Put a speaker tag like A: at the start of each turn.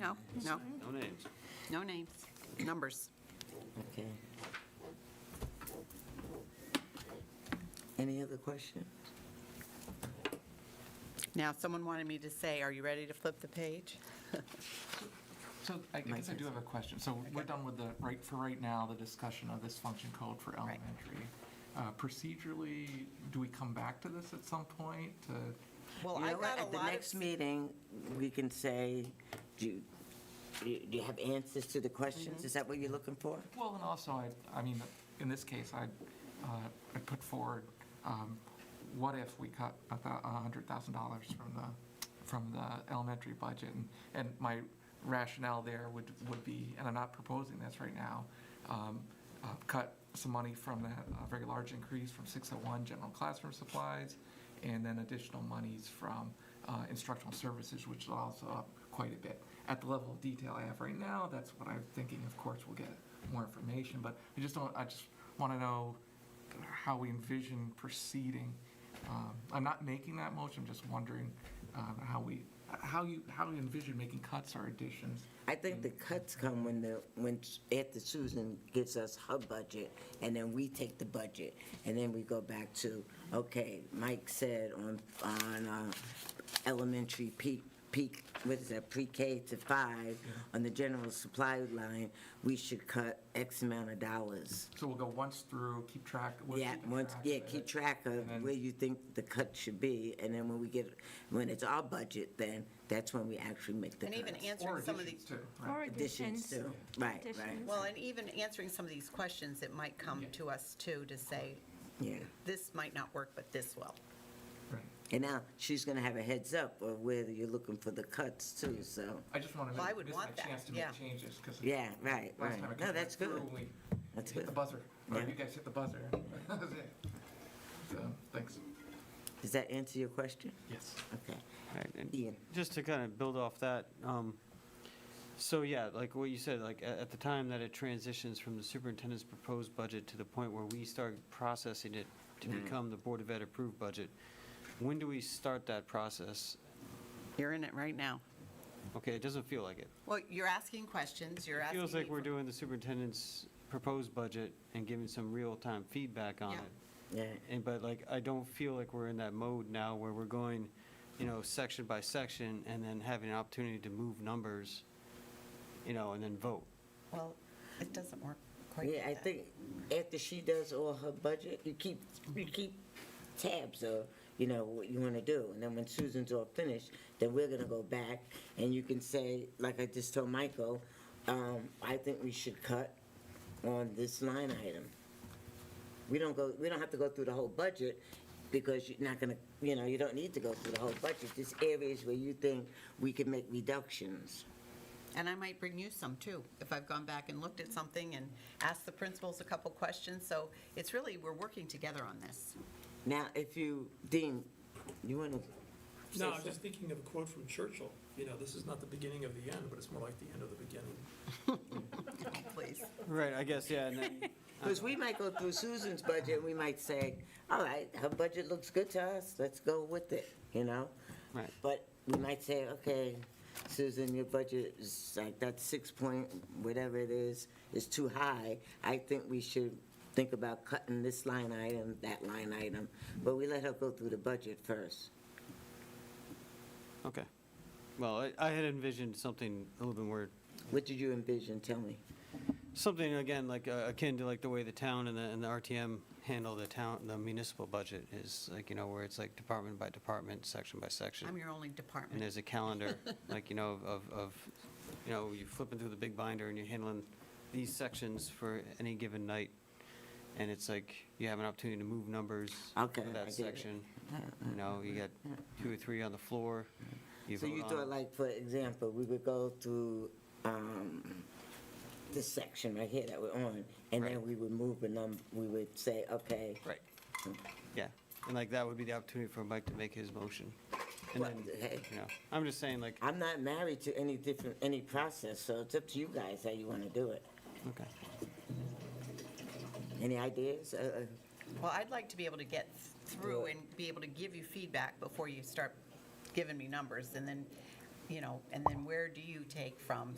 A: No, no,
B: No names.
A: no names, numbers.
C: Okay. Any other questions?
A: Now, someone wanted me to say, are you ready to flip the page?
D: So I I guess I do have a question. So we're done with the, right, for right now, the discussion of this function code for
A: Right.
D: elementary. Uh, Procedurally, do we come back to this at some point? to-
A: Well,
C: You
A: I
C: know what,
A: got a
C: At the
A: lot of,
C: next meeting, we can say, do you, do you- do you have answers to the
A: Mm-hmm.
C: questions? Is that what you're looking for?
D: Well, and also, I, I mean, in this case, I, uh, I put forward, um, what if we cut a thou- a hundred thousand dollars from the, from the elementary budget? And- And my rationale there would, would be, and I'm not proposing this right now, um, uh, cut some money from that, a very large increase from six oh one general classroom supplies, and then additional monies from uh, instructional services, which is also up quite a bit. At the level of detail I have right now, that's what I'm thinking, of course, we'll get more information, but I just don't, I just want to know how we envision proceeding. Um, I'm not making that motion, I'm just wondering um, how we, how you, how you envision making cuts or additions.
C: I think the cuts come when the, when, s- after Susan gives us her budget, and then we take the budget, and then we go back to, okay, Mike said on, on uh, elementary peak, peak, what is that, pre-K to five, on the general supply line, we should cut X amount of dollars.
D: So we'll go once through, keep track. we'll
C: Yeah,
D: keep
C: once, yeah,
D: of
C: keep
D: it.
C: track of
D: And then-
C: where you think the cut should be, and then when we get, when it's our budget, then that's when we actually make the
A: and
C: cuts.
A: even
D: Or
A: answering some of these,
D: additions too. right.
E: Or
C: Additions
E: additions.
C: too, right, right,
E: Additions.
A: well, and even answering some of these questions, it might come to us too to say,
C: yeah.
A: this might not work, but this will.
D: Right.
C: And now, she's gonna have a heads up of whether you're looking for the cuts too, so,
D: I just want to
A: Well, I
D: make,
A: would
D: miss
A: want
D: my
A: that,
D: chance to
A: yeah.
D: make changes, because.
C: yeah, right,
D: Last
C: right.
D: time I
C: No,
D: kind
C: that's
D: of
C: good,
D: through, we
C: that's
D: hit the
C: good.
D: buzzer, or
C: Yeah.
D: you guys hit the buzzer. That was it. So, thanks.
C: Does that answer your question?
D: Yes.
C: Okay,
B: Right, and
C: Ian,
B: Just to kind of build off that, um, so yeah, like what you said, like at, at the time that it transitions from the superintendent's proposed budget to the point where we start processing it to become the Board of Ed approved budget, when do we start that process?
A: You're in it right now.
B: Okay, it doesn't feel like it.
A: Well, you're asking questions, you're
B: It
A: asking.
B: feels like
A: me
B: we're
A: for-
B: doing the superintendent's proposed budget and giving some real-time feedback on
A: Yeah.
B: it.
C: yeah,
B: And, but like, I don't feel like we're in that mode now where we're going, you know, section by section and then having an opportunity to move numbers, you know, and then vote.
A: Well, it doesn't work quite
C: yeah,
A: like
C: I
A: that.
C: think after she does all her budget, you keep, you keep tabs of, you know, what you wanna do, and then when Susan's all finished, then we're gonna go back, and you can say, like I just told Michael, um, I think we should cut on this line item. We don't go, we don't have to go through the whole budget, because you're not gonna, you know, you don't need to go through the whole budget. There's areas where you think we can make reductions.
A: And I might bring you some too, if I've gone back and looked at something and asked the principals a couple questions. So it's really, we're working together on this.
C: Now, if you, Dean, you wanna say
F: No, I'm
C: something?
F: just thinking of a quote from Churchill, you know, this is not the beginning of the end, but it's more like the end of the beginning.
A: Please.
B: Right, I guess, yeah, and then,
C: Because we might go through Susan's budget, and we might say, all right, her budget looks good to us, let's go with it, you know?
B: right.
C: But we might say, okay, Susan, your budget is like, that six point, whatever it is, is too high. I think we should think about cutting this line item, that line item, but we let her go through the budget first.
B: Okay. Well, I, I had envisioned something a little bit more,
C: What did you envision, tell me?
B: something again, like uh, akin to like the way the town and the, and the RTM handle the town, the municipal budget is like, you know, where it's like department by department, section by section.
A: I'm your only
B: And
A: department.
B: there's a calendar, like, you know, of, of, you know, you're flipping through the big binder and you're handling these sections for any given night. And it's like, you have an opportunity to move numbers
C: Okay,
B: for
C: I
B: that
C: get it.
B: section. You know, you got two or three on the floor.
C: So
B: vote
C: you
B: on
C: thought
B: it.
C: like, for example, we would go through, um, this section right here that we're on, and then
B: Right.
C: we would move a num, we would say, okay.
B: Right. Yeah, and like, that would be the opportunity for Mike to make his motion. And
C: Well,
B: then,
C: hey.
B: you know, I'm just saying like,
C: I'm not married to any different, any process, so it's up to you guys how you wanna do it.
B: okay.
C: Any ideas? Uh, uh,
A: Well, I'd like to be able to get through and be able to give you feedback before you start giving me numbers. And then you know, and then where do you take from?